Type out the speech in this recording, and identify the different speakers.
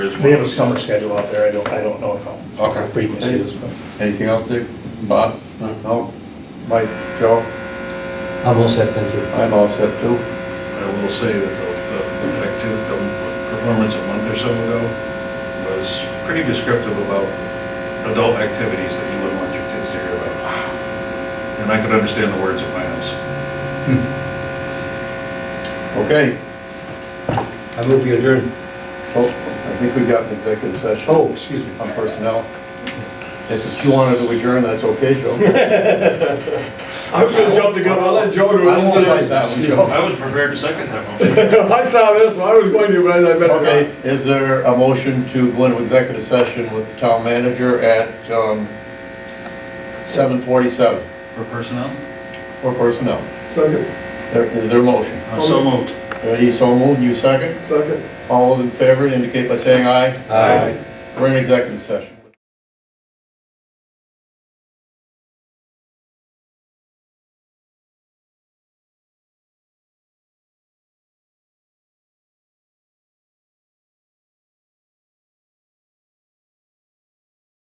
Speaker 1: They have a summer schedule out there, I don't, I don't know if I'm.
Speaker 2: Okay.
Speaker 1: Frequency is, but.
Speaker 2: Anything else, Dick? Bob?
Speaker 3: No, Mike, Joe,
Speaker 4: I'm all set, thank you.
Speaker 3: I'm all set too.
Speaker 5: I will say that the, the activity, the performance a month or so ago was pretty descriptive about adult activities that you wouldn't want your kids to hear about. And I could understand the words at my house.
Speaker 2: Okay,
Speaker 4: I move you adjourn.
Speaker 3: Oh, I think we got an executive session.
Speaker 4: Oh, excuse me.
Speaker 3: On personnel. If you wanted to adjourn, that's okay, Joe.
Speaker 6: I was gonna jump the gun, I'll let Joe do
Speaker 3: I won't fight that one, Joe.
Speaker 5: I was prepared to second that motion.
Speaker 6: I saw this, one. I was going to, but I better not.
Speaker 3: Okay, is there a motion to go into executive session with the town manager at, um, seven forty-seven
Speaker 5: For personnel?
Speaker 3: for personnel?
Speaker 6: Second,
Speaker 3: There, is there a motion?
Speaker 1: Oh,
Speaker 5: Uh, So moved.
Speaker 3: Are you so moved, you second?
Speaker 6: second.
Speaker 3: All those in favor indicate by saying aye.
Speaker 4: Aye.
Speaker 3: We're in executive session.